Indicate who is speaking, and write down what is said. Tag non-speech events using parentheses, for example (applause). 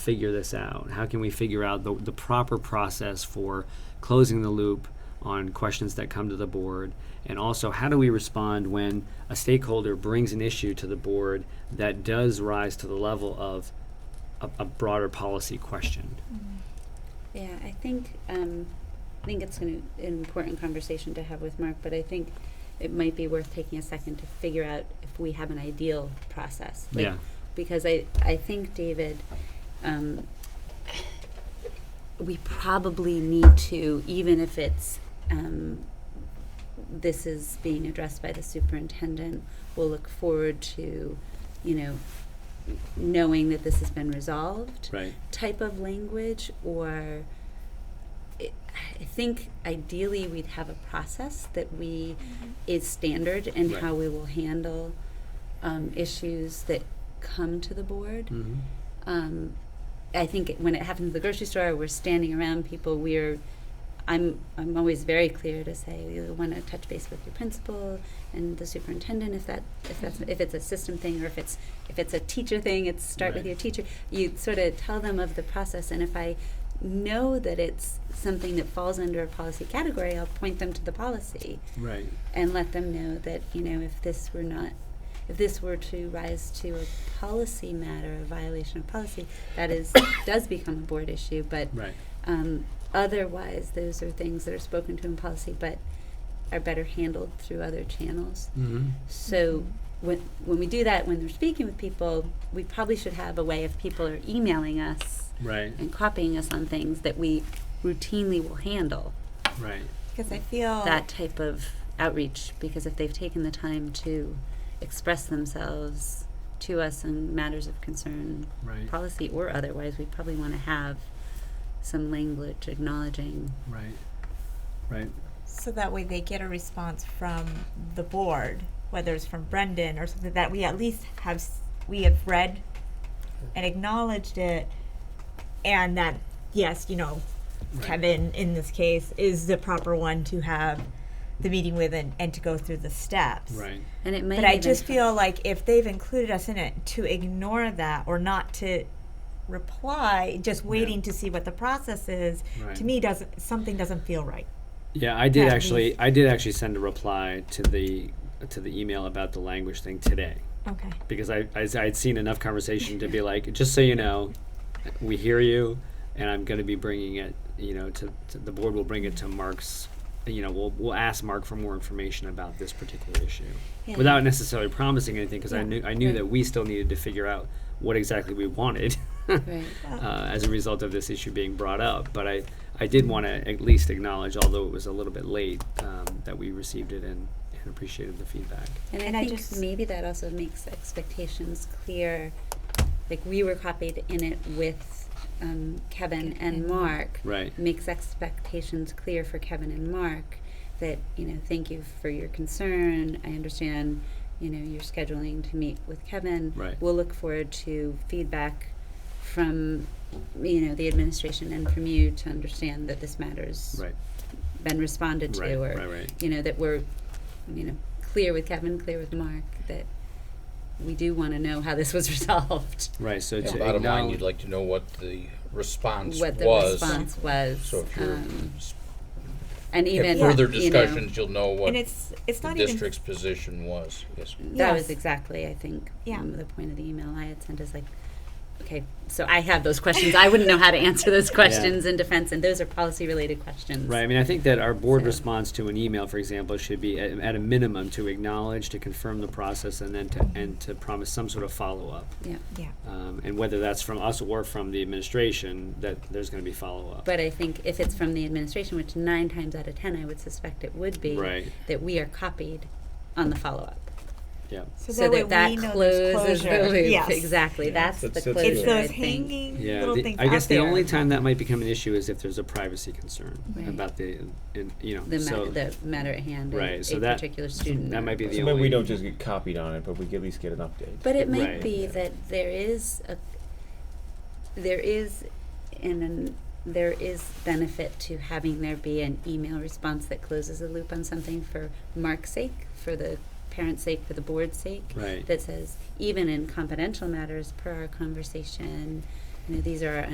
Speaker 1: figure this out? How can we figure out the, the proper process for closing the loop on questions that come to the board? And also, how do we respond when a stakeholder brings an issue to the board that does rise to the level of a, a broader policy question?
Speaker 2: Yeah, I think, um, I think it's an, an important conversation to have with Mark, but I think it might be worth taking a second to figure out if we have an ideal process. Like,
Speaker 1: yeah.
Speaker 2: Because I, I think, David, um, we probably need to, even if it's, um, this is being addressed by the superintendent, we'll look forward to, you know, knowing that this has been resolved
Speaker 1: Right.
Speaker 2: type of language or I I think ideally we'd have a process that we is standard in
Speaker 1: Right.
Speaker 2: how we will handle um, issues that come to the board.
Speaker 1: hmm
Speaker 2: Um, I think it- when it happens at the grocery store, we're standing around people. We're I'm I'm always very clear to say you want to touch base with your principal and the superintendent if that if that's if it's a system thing or if it's if it's a teacher thing, it's start with
Speaker 1: Right.
Speaker 2: your teacher. You sort of tell them of the process, and if I know that it's something that falls under a policy category, I'll point them to the policy
Speaker 1: Right.
Speaker 2: and let them know that you know if this were not if this were to rise to a policy matter a violation of policy that is (coughs) does become a board issue but
Speaker 1: Right.
Speaker 2: um, otherwise those are things that are spoken to in policy but are better handled through other channels
Speaker 1: Mm-hmm.
Speaker 2: so when when we do that when they're speaking with people we probably should have a way if people are emailing us
Speaker 1: Right.
Speaker 2: and copying us on things that we routinely will handle
Speaker 1: Right.
Speaker 3: Because I feel
Speaker 2: that type of outreach because if they've taken the time to express themselves to us on matters of concern,
Speaker 1: Right.
Speaker 2: policy or otherwise, we probably want to have some language acknowledging.
Speaker 1: Right. Right.
Speaker 3: so that way they get a response from the board, whether it's from Brendan or something that we at least have s- we have read and acknowledged it, and that yes, you know,
Speaker 1: Right.
Speaker 3: Kevin in this case is the proper one to have the meeting with and, and to go through the steps.
Speaker 1: Right.
Speaker 2: And it might.
Speaker 3: But I
Speaker 2: even
Speaker 3: just
Speaker 2: come-
Speaker 3: feel like if they've included us in it, to ignore that or not to reply, just waiting to see what the process is,
Speaker 1: Right.
Speaker 3: to me doesn't something doesn't feel right.
Speaker 1: Yeah, I did
Speaker 3: That
Speaker 1: actually.
Speaker 3: means-
Speaker 1: I did actually send a reply to the to the email about the language thing today
Speaker 3: Okay.
Speaker 1: because I I would seen enough conversation to
Speaker 2: (laughs)
Speaker 1: be like, just so you know, we hear you, and I'm going to be bringing it. You know, to, to the board will bring it to Mark's. You know, we'll we'll ask Mark for more information about this particular issue
Speaker 2: Yeah.
Speaker 1: without necessarily promising anything because I
Speaker 3: Yeah,
Speaker 1: knew I knew
Speaker 2: right.
Speaker 1: that we still needed to figure out what exactly we wanted. (laughs)
Speaker 2: Right.
Speaker 1: uh, as a result of this issue being brought up. But I, I did want to at least acknowledge, although it was a little bit late, um, that we received it and, and appreciated the feedback.
Speaker 2: And,
Speaker 3: And
Speaker 2: I
Speaker 3: I
Speaker 2: think
Speaker 3: just-
Speaker 2: maybe that also makes expectations clear. Like we were copied in it with um, Kevin and
Speaker 3: and
Speaker 2: Mark.
Speaker 1: Right.
Speaker 2: makes expectations clear for Kevin and Mark that, you know, thank you for your concern. I understand, you know, you're scheduling to meet with Kevin.
Speaker 1: Right.
Speaker 2: We'll look forward to feedback from, you know, the administration and from you to understand that this matter's
Speaker 1: Right.
Speaker 2: been responded to
Speaker 1: Right.
Speaker 2: or,
Speaker 1: Right. Right.
Speaker 2: you know, that we're, you know, clear with Kevin, clear with Mark, that we do want to know how this was (laughs) resolved,
Speaker 1: Right. So
Speaker 4: Yeah,
Speaker 1: to
Speaker 4: bottom line,
Speaker 1: acknowledge-
Speaker 4: you'd like to know what the response
Speaker 2: what the
Speaker 4: was.
Speaker 2: response was.
Speaker 4: So if you're,
Speaker 2: um,
Speaker 4: s-
Speaker 2: and even
Speaker 4: have further
Speaker 2: you know,
Speaker 4: discussions, you'll know what
Speaker 3: and it's it's
Speaker 4: the
Speaker 3: not even
Speaker 4: district's position was, yes.
Speaker 2: That was
Speaker 3: Yes.
Speaker 2: exactly, I think,
Speaker 3: Yeah.
Speaker 2: um, the point of the email I had sent is like, okay, so I have those questions. I wouldn't know how to answer
Speaker 3: (laughs)
Speaker 2: those questions in defense, and those are policy related questions.
Speaker 1: Right. I mean, I think that our board
Speaker 2: So-
Speaker 1: response to an email, for example, should be at, at a minimum to acknowledge, to confirm the process, and then to and to promise some sort of follow up.
Speaker 2: Yeah.
Speaker 3: yeah.
Speaker 1: Um, and whether that's from us or from the administration, that there's going to be follow up.
Speaker 2: But I think if it's from the administration, which nine times out of ten I would suspect it would be,
Speaker 1: Right.
Speaker 2: that we are copied on the follow up.
Speaker 1: Yeah.
Speaker 3: So,
Speaker 2: so that
Speaker 3: way
Speaker 2: that
Speaker 3: we know there's
Speaker 2: closes
Speaker 3: closure.
Speaker 2: the loop.
Speaker 3: Yes.
Speaker 2: Exactly.
Speaker 1: Yeah.
Speaker 2: That's
Speaker 5: That's-
Speaker 2: the
Speaker 5: that's
Speaker 2: closure.
Speaker 3: It's
Speaker 2: I
Speaker 3: those
Speaker 2: think.
Speaker 3: hanging
Speaker 1: Yeah,
Speaker 3: little
Speaker 1: the-
Speaker 3: things.
Speaker 1: I guess
Speaker 3: out
Speaker 1: the
Speaker 3: there.
Speaker 1: only time that might become an issue is if there's a privacy concern
Speaker 2: Right.
Speaker 1: about the, in, you know,
Speaker 2: The, ma-
Speaker 1: so
Speaker 2: the matter at hand,
Speaker 1: Right,
Speaker 2: and
Speaker 1: so
Speaker 2: a
Speaker 1: that-
Speaker 2: particular student.
Speaker 1: that
Speaker 2: or-
Speaker 1: might be the
Speaker 5: So
Speaker 1: only.
Speaker 5: maybe we don't just get copied on it, but we at least get an update.
Speaker 2: But it might
Speaker 1: Right.
Speaker 2: be that there is a there is an, an there is benefit to having there be an email response that closes a loop on something for Mark's sake, for the parent's sake, for the board's sake.
Speaker 1: Right.
Speaker 2: That says even in confidential matters per our conversation, you know, these are our